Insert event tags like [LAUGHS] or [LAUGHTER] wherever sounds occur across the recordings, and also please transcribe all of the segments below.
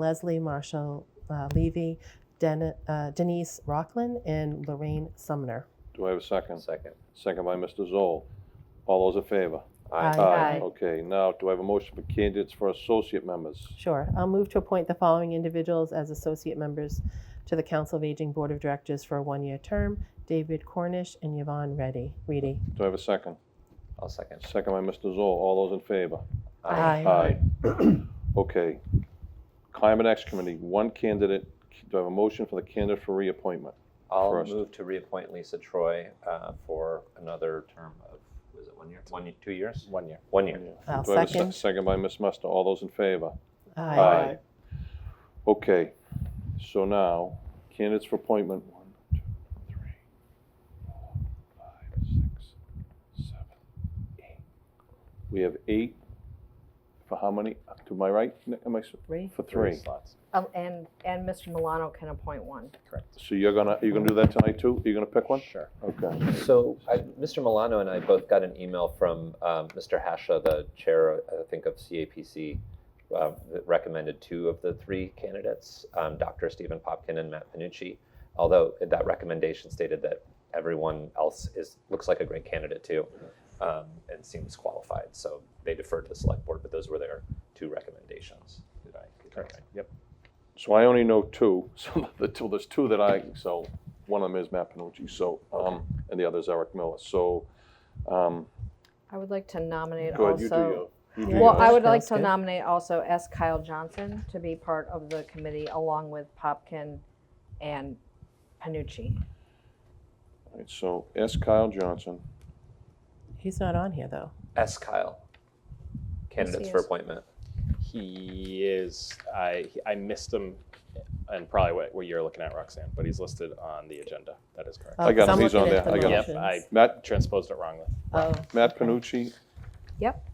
Leslie Marshall uh, Levy, Den- uh, Denise Rockland, and Lorraine Sumner. Do I have a second? Second. Second by Mr. Zoll. All those in favor? Aye. uh, Aye. Okay, now, do I have a motion for candidates for associate members? Sure. I'll move to appoint the following individuals as associate members to the Council of Aging Board of Directors for a one-year term, David Cornish and Yvonne Reddy. Reedy. Do I have a second? I'll second. Second by Mr. Zoll. All those in favor? Aye. [CLEARS THROAT] Okay. Climate Action Committee, one candidate. Do I have a motion for the candidate for reappointment? I'll First. move to reappoint Lisa Troy uh, for another term of, was it one year? One, ye- two years? One year. One year. I'll Do I have a se- second. Second by Ms. Musto. All those in favor? Aye. Okay, so now, candidates for appointment. One, two, three, four, five, six, seven, eight. We have eight, for how many? To my right, Nick, am I, s- Three. for three. slots. Oh, And, and Mr. Milano can appoint one. So you're gonna, you're gonna do that tonight too? You're gonna pick one? Sure. Okay. So I, Mr. Milano and I both got an email from um, Mr. Hasha, the chair, I think, of CAPC, um, that recommended two of the three candidates, um, Dr. Stephen Popkin and Matt Panucci. Although that recommendation stated that everyone else is looks like a great candidate too, um, and seems qualified. So they deferred to the select board, but those were their two recommendations. Did I? get that right? Yep. So I only know two, [LAUGHS] so the two, there's two that I, so one of them is Matt Panucci, so, um, and the other is Eric Miller. So, um, I would like to nominate go ahead, you do also. your, you do Yeah. Well, yours. I would like Sounds to good. nominate also S. Kyle Johnson to be part of the committee along with Popkin and Panucci. All right, So S. Kyle Johnson, He's not on here, though. S. Kyle, candidates for is. appointment. He is. I I missed him, and probably what, what you're looking at, Roxanne. But he's listed on the agenda. That is correct. Oh, I got him. so I'm He's on looking at there. the I got yep. motions. I Matt, transposed it wrongly. Oh, Matt Panucci, Yep,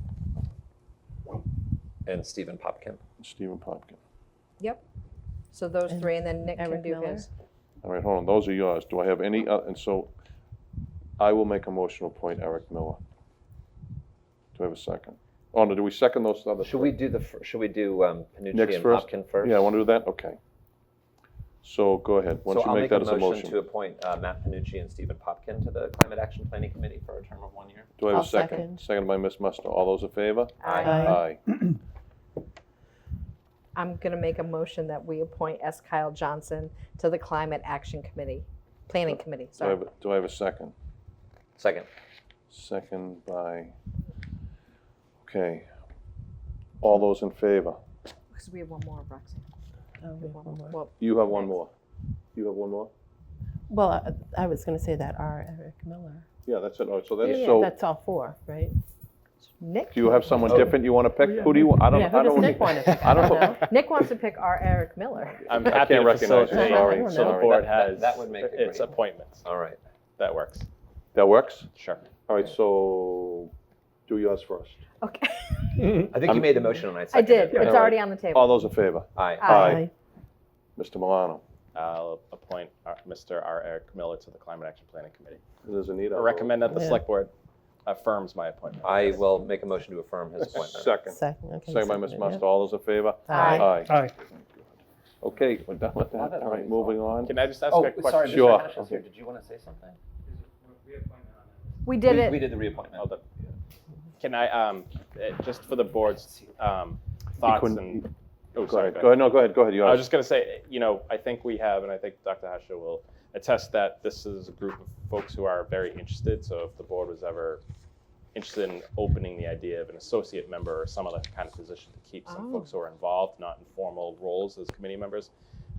And Stephen Popkin. Stephen Popkin. yep. So those And three, and then Nick can Eric do Miller. his. All right, hold on, those are yours. Do I have any, oth- and so I will make a motion to appoint Eric Miller. Do I have a second? Oh, no, do we second those other? Should we do the? fir- Should we do um, Panucci Nick's and first? Popkin first? Yeah, I want to do that, okay. So go ahead, why So don't I'll you make that as a to motion? appoint uh, Matt Panucci and Stephen Popkin to the Climate Action Planning Committee for a term of one year. Do I have I'll a second? second. Second by Ms. Musto, all those in favor? Aye. I'm going to make a motion that we appoint S. Kyle Johnson to the Climate Action Committee, Planning Committee, Do I sorry. have, a- do I have a second? Second. Second by, okay. All those in favor? Because we have one more, Roxanne. oh, we have one more. Well, You have one more. You have one more? Well, I- I was going to say that R. Eric Miller. Yeah, that's it, all right, so Yeah, that's, yeah, so. that's all four, right? Nick, Do you have someone Oh. different you want to pick? Who do you, I don't, Yeah, I who does don't. Nick want to pick? I don't know. know. Nick wants to pick our Eric Miller. [LAUGHS] I'm I happy can't to recognize you, facilitate. I sorry, don't So the sorry. board That- has that would make a great its one. appointments. All right. That works. That works? Sure. All right, so do yours first. Okay, I think I'm- you made the motion and I I seconded did. it. It's already on the All table. those in favor? Aye. Aye. Mr. Milano. I'll appoint our, Mr. R. Eric Miller to the Climate Action Planning Committee. There's Anita. I recommend that the Yeah. select board affirms my appointment. I will make a motion to affirm his appointment. Second. Second, okay. Second by Ms. seconded, yeah. Musto. All those in favor? Aye. Aye. Okay, we're done with Well, that. that's All right, what we thought. moving on. Can I just ask Oh, a question? sorry, Mr. Sure. Hatch is here. Did you want to say something? We did we, it. we did the reappointment. Hold up. Can I, um, eh, just for the board's, um, thoughts couldn't- and. Go oh, sorry, ahead, go ahead, no, go ahead, go ahead, I was yours. just gonna say, you know, I think we have, and I think Dr. Hasha will attest that this is a group of folks who are very interested. So if the board was ever interested in opening the idea of an associate member or some other kind of position to keep some Oh. folks who are involved, not in formal roles as committee members,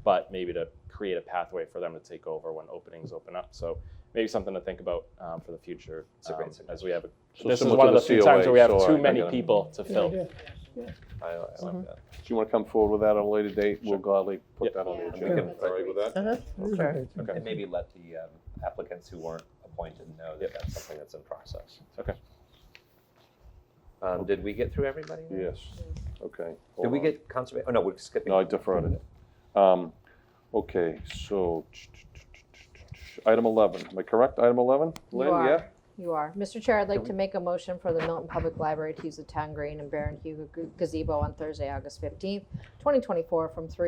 but maybe to create a pathway for them to take over when openings open up. So maybe something to think about um, for the future It's a great um, as we have. A, So this is similar to one of the the few times COA, where we have so I- too I many gotta- people to fill. I, I like Mm-hmm. that. Do you want to come forward with that at a later date? We'll gladly put Yep. that on the Yeah. We can- agenda. All right with that? Uh-huh, sure. And maybe let the um, applicants who weren't appointed know that that's something that's in process. Okay. Um, did we get through everybody? Yes, okay. Did hold we on. get conservation? Oh, no, we're skipping. No, I deferred it. Um, Okay, so, item 11, am I correct, item 11? You Lynn, are. yeah? You are. Mr. Chair, I'd like to make a motion for the Milton Public Library to use the town green and Baron Hugh gazebo on Thursday, August 15th, 2024, from three.